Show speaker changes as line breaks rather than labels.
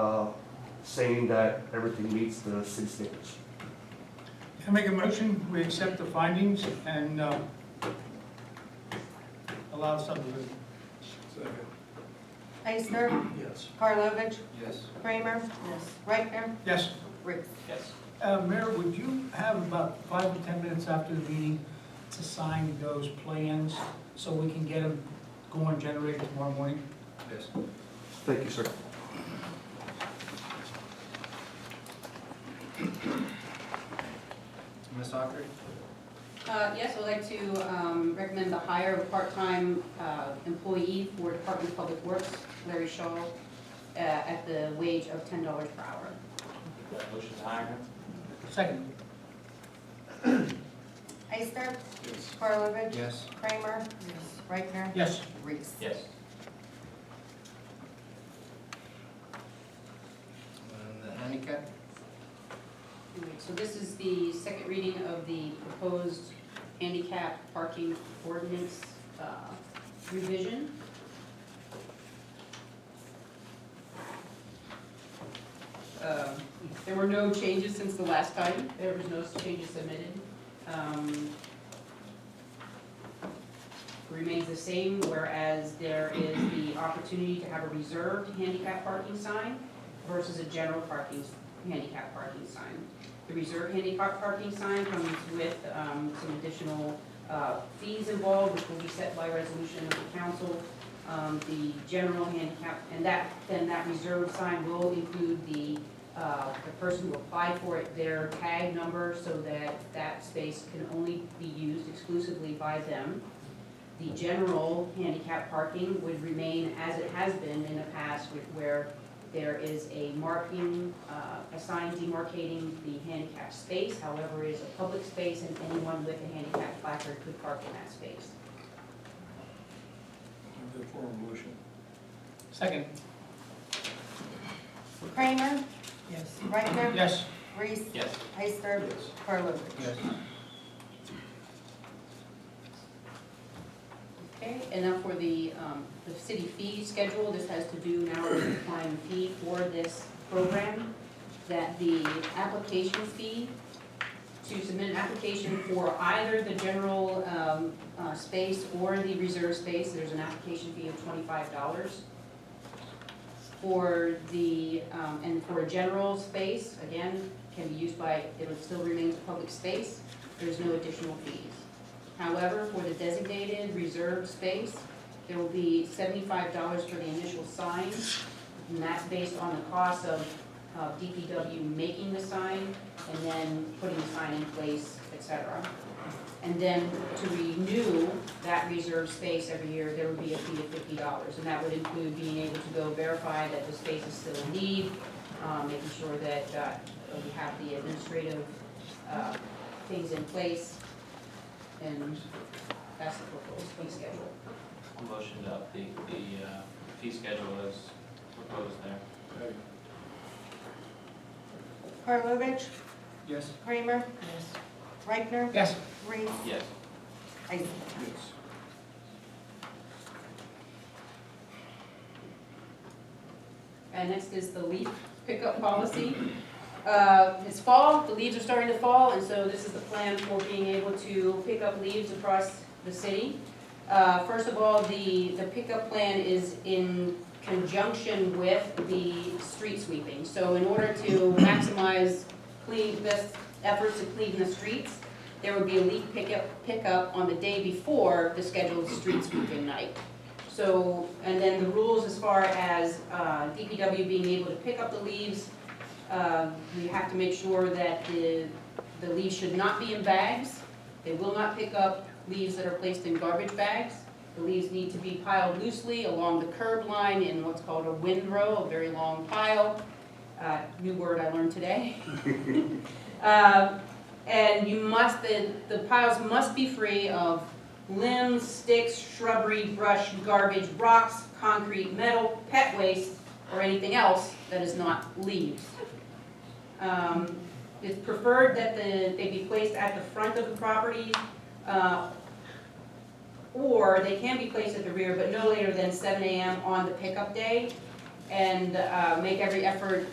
uh, saying that everything meets the city standards.
Can I make a motion, we accept the findings and uh, allow subdivision?
Second.
Eisner,
Yes.
Karlovic,
Yes.
Kramer. Yes. Reichtner,
Yes.
Ruth.
Yes.
Uh, Mayor, would you have about five or 10 minutes after the meeting to sign those plans so we can get them going generated tomorrow morning?
Yes.
Thank you, sir.
Ms. Autry?
Uh, Yes, I'd like to um, recommend the hire of a part-time uh, employee for Department of Public Works, Larry Shaw, uh, at the wage of $10 per hour.
Got a motion to hire him?
Second.
Eisner,
Yes.
Karlovic.
Yes.
Kramer. Reichtner,
Yes.
Reese.
Yes.
And the handicap?
Alright, So this is the second reading of the proposed handicap parking ordinance uh, revision. Um, There were no changes since the last time, there was no changes submitted. Um, Remains the same, whereas there is the opportunity to have a reserved handicap parking sign versus a general parking handicap parking sign. The reserve handicap parking sign comes with um, some additional uh, fees involved, which will be set by resolution of the council. Um, The general handicap, and that, then that reserve sign will include the, uh, the person who applied for it, their tag number, so that that space can only be used exclusively by them. The general handicap parking would remain as it has been in the past, with- where there is a marking, uh, a sign demarcating the handicap space, however, it is a public space and anyone with a handicap placard could park in that space.
Move the form motion.
Second.
Kramer. Yes. Reichtner.
Yes.
Reese.
Yes.
Eisner,
Yes.
Karlovic.
Yes.
Okay, and now for the, um, the city fee schedule, this has to do now with the prime fee for this program, that the application fee, to submit an application for either the general, um, uh, space or the reserve space, there's an application fee of twenty-five dollars. For the, um, and for a general space, again, can be used by, it would still remain a public space, there's no additional fees. However, for the designated reserved space, there will be seventy-five dollars for the initial sign, and that's based on the cost of uh, DPW making the sign and then putting the sign in place, et cetera. And then to renew that reserved space every year, there would be a fee of fifty dollars, and that would include being able to go verify that the space is still in need, um, making sure that uh, we have the administrative uh, things in place, and that's the proposed fee schedule.
A motion to update the uh, fee schedule as proposed there.
Karlovic.
Yes.
Kramer. Yes. Reichtner.
Yes.
Reese.
Yes.
Eisner.
Yes.
And next is the leaf pickup policy. Uh, It's fall, the leaves are starting to fall, and so this is the plan for being able to pick up leaves across the city. Uh, First of all, the, the pickup plan is in conjunction with the street sweeping. So in order to maximize clean, best efforts to clean the streets, there would be a leaf pickup, pickup on the day before the scheduled street sweeping night. So, and then the rules as far as uh, DPW being able to pick up the leaves, uh, we have to make sure that the, the leaves should not be in bags. They will not pick up leaves that are placed in garbage bags. The leaves need to be piled loosely along the curb line in what's called a windrow, a very long pile. Uh, New word I learned today. Uh, And you must, the, the piles must be free of limbs, sticks, shrubbery, brush, garbage, rocks, concrete, metal, pet waste, or anything else that is not leaves. Um, It's preferred that the, they be placed at the front of the property, uh, or they can be placed at the rear, but no later than seven AM on the pickup day. and uh, make every effort